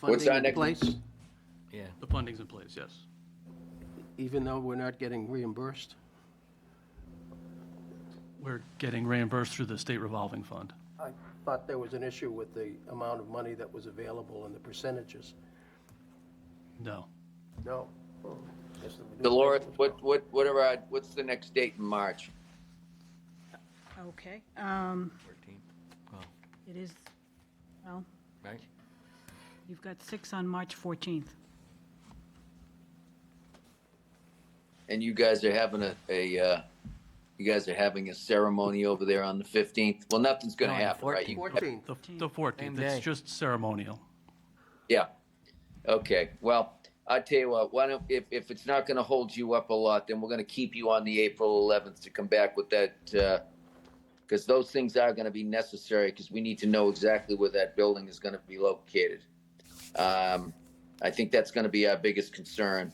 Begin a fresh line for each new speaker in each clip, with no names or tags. What's
funding
our
in
next?
place,
Yeah,
The funding's in place, yes.
even though we're not getting reimbursed?
We're getting reimbursed through the state revolving fund.
I thought there was an issue with the amount of money that was available and the percentages.
No.
No. Oh, guess that we do-
Dolores, what, what, what are our, what's the next date in March?
Okay, um,
13, well,
it is, well,
right?
you've got six on March 14th.
And you guys are having a, a, uh, you guys are having a ceremony over there on the fifteenth? Well, nothing's gonna
No, on the
happen, right?
14th.
14.
The the 14th,
day.
it's just ceremonial.
Yeah. Okay, well, I tell you what, why don't, if, if it's not gonna hold you up a lot, then we're gonna keep you on the April eleventh to come back with that, uh, cause those things are gonna be necessary, cause we need to know exactly where that building is gonna be located. Um, I think that's gonna be our biggest concern.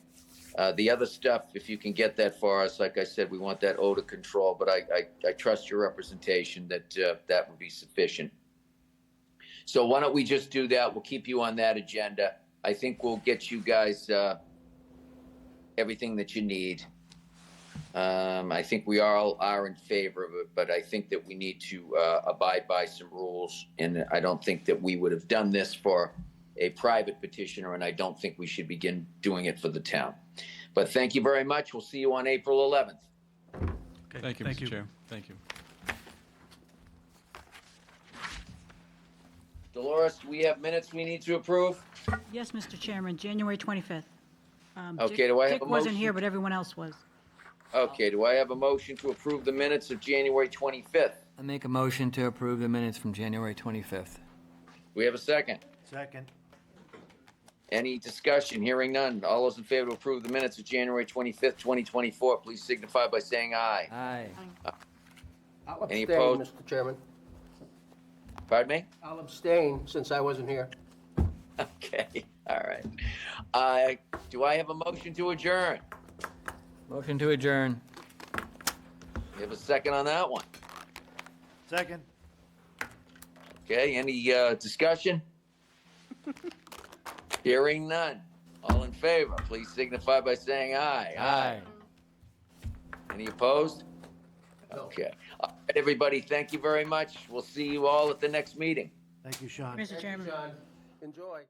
Uh, the other stuff, if you can get that for us, like I said, we want that odor control, but I, I, I trust your representation that, uh, that would be sufficient. So why don't we just do that? We'll keep you on that agenda. I think we'll get you guys uh, everything that you need. Um, I think we all are in favor of it, but I think that we need to uh, abide by some rules. And I don't think that we would have done this for a private petitioner, and I don't think we should begin doing it for the town. But thank you very much. We'll see you on April 11th.
Okay,
Thank you, Mr. Chair. Thank you.
Dolores, we have minutes we need to approve.
Yes, Mr. Chairman, January 25th. Um, Dick-
Okay, do I have a
Dick wasn't here,
motion?
but everyone else was.
Okay, do I have a motion to approve the minutes of January 25th?
I make a motion to approve the minutes from January 25th.
We have a second.
Second.
Any discussion? Hearing none. All those in favor to approve the minutes of January 25th, 2024, please signify by saying aye.
Aye.
I'll
Any
abstain,
opposed?
Mr. Chairman.
Pardon me?
I'll abstain since I wasn't here.
Okay, all right. Uh, do I have a motion to adjourn?
Motion to adjourn.
You have a second on that one?
Second.
Okay, any, uh, discussion? Hearing none. All in favor, please signify by saying aye. Any opposed? Okay. All right, everybody, thank you very much. We'll see you all at the next meeting.
Thank you, Sean.
Mr.
Thank you,
Chairman.
John. Enjoy.